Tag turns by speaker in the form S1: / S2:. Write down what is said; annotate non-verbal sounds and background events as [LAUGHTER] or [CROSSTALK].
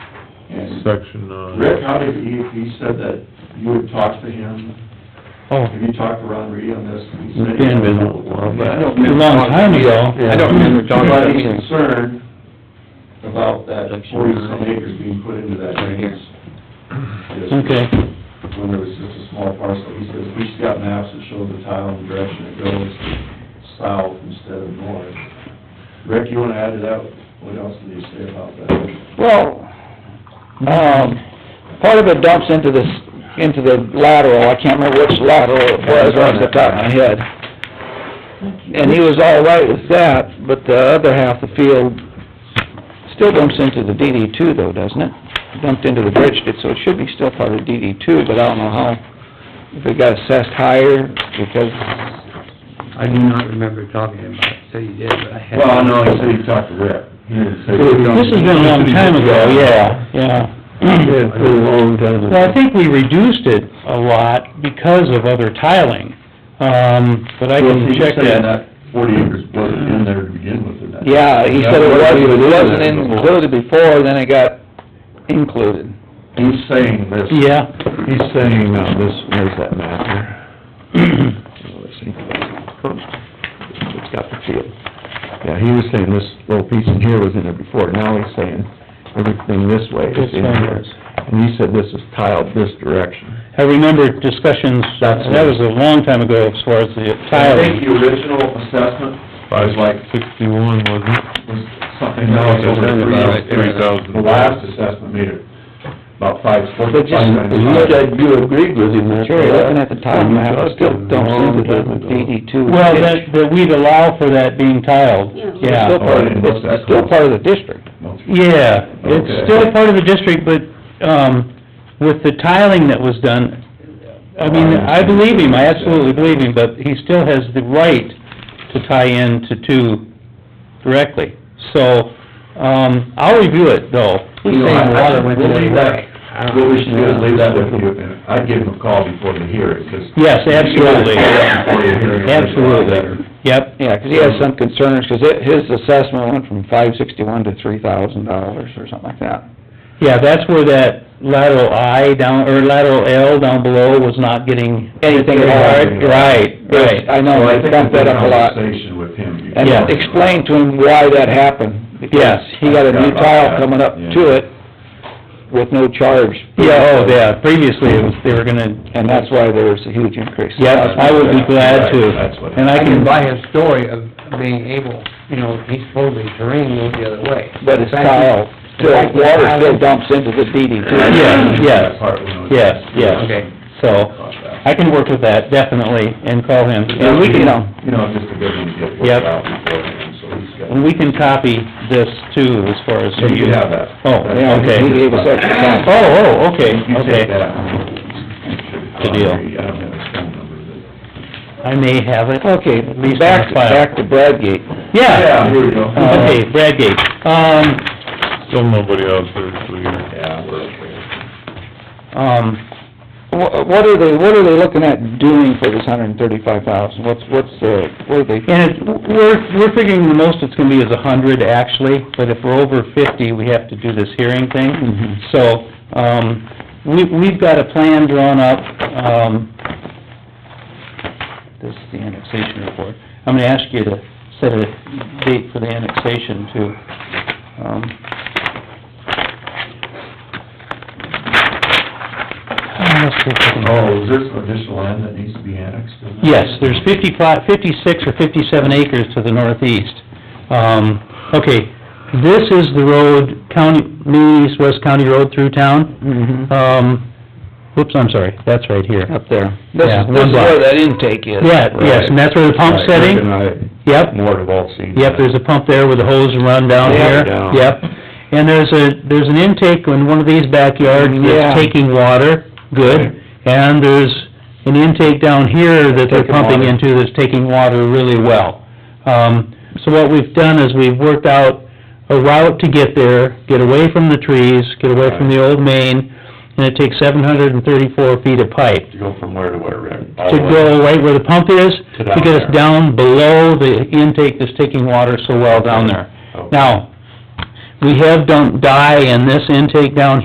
S1: section, uh,
S2: Rick, how did he, he said that you had talked to him,
S3: Oh,
S2: have you talked to Ron Reed on this? He
S1: it's
S2: said-
S1: been a while
S2: I
S1: back.
S2: don't
S3: a long time ago.
S1: I don't remember
S2: Talking about he's concerned about that forty-some acres being put into that drainage. district.
S3: Okay,
S2: When there was just a small parcel, he says, he's got maps that show the tile and direction it goes, south instead of north. Rick, you wanna add to that, what else did he say about that?
S4: Well, um, part of it dumps into this, into the lateral, I can't remember which lateral it was off the top of my head. And he was all right with that, but the other half of the field still dumps into the DD two though, doesn't it? Dumped into the bridge, ditch, so it should be still part of DD two, but I don't know how, if it got assessed higher, because,
S5: I do not remember talking to him about it, so you did, but I had.
S2: Well, no, he said he talked to Rick. He didn't say-
S3: this has been a long time ago, yeah, yeah.
S1: Yeah, it's been
S4: [CLEARS THROAT]
S1: a long time.
S3: Well, I think we reduced it a lot because of other tiling, um, but I can check that.
S2: Forty acres wasn't in there to begin with, or not?
S4: yeah, he said it wasn't, it wasn't included before, then it got included.
S2: He's saying this.
S3: Yeah, [CLEARS THROAT]
S1: He's saying, uh, this, where's that map here? Let's see. It's got the field. Yeah, he was saying this little piece in here was in there before, now he's saying everything this way is
S3: this
S1: in
S3: one
S1: here.
S3: was.
S1: And he said this is tiled this direction.
S3: I remember discussions, that was a long time ago as far as the
S2: I think
S3: tiling.
S2: the original assessment was like,
S1: sixty-one, wasn't it?
S2: was something else over
S1: About
S2: three.
S1: three thousand.
S2: The last assessment made it about five, four,
S1: But
S2: five
S1: just,
S2: times
S1: you looked
S2: higher.
S1: at, you agreed with him, that's.
S4: Sure, looking at the tile map, it still dumps into the
S1: DD.
S4: DD E two.
S3: Well, that, that we'd allow for that being tiled,
S4: It's
S2: Oh,
S4: still
S3: yeah.
S4: part of, it's still part of the district.
S3: Yeah,
S2: Okay.
S3: it's still part of the district, but, um, with the tiling that was done, I mean, I believe him, I absolutely believe him, but he still has the right to tie in to two directly. So, um, I'll review it though.
S5: He's saying water went to
S2: We'll
S5: the
S2: leave
S5: wreck.
S2: that, what we should do is leave that with you, and I'd give him a call before the hearing, because.
S3: Yes, absolutely. Absolutely, yep.
S4: Yeah, 'cause he has some concerns, 'cause it, his assessment went from five sixty-one to three thousand dollars or something like that.
S3: Yeah, that's where that lateral I down, or lateral L down below was not getting...
S4: Anything at all.
S3: Right, right.
S4: I know, I bumped that up a lot.
S2: Conversation with him.
S4: And
S3: Yeah.
S4: explain to him why that happened, because
S3: Yes.
S4: he got a
S2: I
S4: new
S2: forgot about
S4: tile
S2: that.
S4: coming up
S2: Yeah.
S4: to it with no charge.
S3: Yeah, oh, yeah, previously it was, they were gonna,
S4: And that's why there was a huge increase.
S3: yeah, I would be glad to.
S2: Right, that's what-
S3: And
S5: I
S3: I
S5: can
S3: can,
S5: buy his story of being able, you know, he's supposedly terrain moved the other way.
S4: But it's
S5: The fact that-
S4: tile,
S5: the
S4: still,
S5: fact that
S4: water
S5: tile-
S4: still dumps into the DD two.
S3: Yeah, yes, yes, yes.
S5: Okay.
S3: so, I can work with that, definitely, and call him. And we
S4: You
S3: can, um,
S4: know,
S2: You know, just to give him a good
S3: Yep.
S2: work out beforehand, so he's got.
S3: and we can copy this too, as far as...
S2: So you have that.
S3: Oh,
S4: yeah,
S3: okay.
S4: he gave us extra time.
S3: Oh, oh, okay,
S2: You take
S3: okay.
S2: that.
S3: Good deal.
S2: I don't have his phone number,
S3: I may have it.
S4: Okay,
S3: At least on
S4: back,
S3: the file.
S4: back to Bradgate.
S2: but-
S3: Yeah, Uh,
S2: Yeah, here we go.
S3: okay, Bradgate. Um,
S1: Still nobody else there, so you're.
S2: Yeah, we're okay.
S3: um,
S4: Wha- What are they, what are they looking at doing for this hundred and thirty-five thousand? What's, what's the, what are they,
S3: And it's, we're, we're figuring the most it's gonna be is a hundred actually, but if we're over fifty, we have to do this hearing thing.
S4: Mhm.
S3: So, um, we, we've got a plan drawn up, um, this is the annexation report. I'm gonna ask you to set a date for the annexation too. Um, let's see if I can-
S2: Oh, is there some additional land that needs to be annexed? in there?
S3: Yes, there's fifty plot, fifty-six or fifty-seven acres to the northeast. Um, okay, this is the road, county, New East West County Road through town.
S4: Mhm.
S3: Um, whoops, I'm sorry, that's right here.
S4: up there? This
S3: Yeah,
S4: is,
S3: one
S4: this is where
S3: block.
S4: that intake is.
S3: Yeah, yes, and that's where the pump
S1: Right,
S3: setting?
S1: Rick and I,
S3: Yep,
S1: More have all seen.
S3: yep, there's a pump there with a hose run down
S4: Yeah.
S3: here.
S1: Down.
S3: Yep, and there's a, there's an intake in one of these backyards
S4: Yeah.
S3: that's taking water,
S1: Right.
S3: good. And there's an intake down here that they're
S4: Taking
S3: pumping
S4: water.
S3: into that's taking water really well. Um, so what we've done is we've worked out a route to get there, get away from the trees, get away from the old main, and it takes seven hundred and thirty-four feet of pipe
S1: To go from where to where, Rick?
S3: to go right where the pump is,
S1: To
S3: to
S1: down
S3: get
S1: there.
S3: us down below the intake that's taking water so well down there.
S1: Okay.
S3: Now, we have dumped dye in this intake down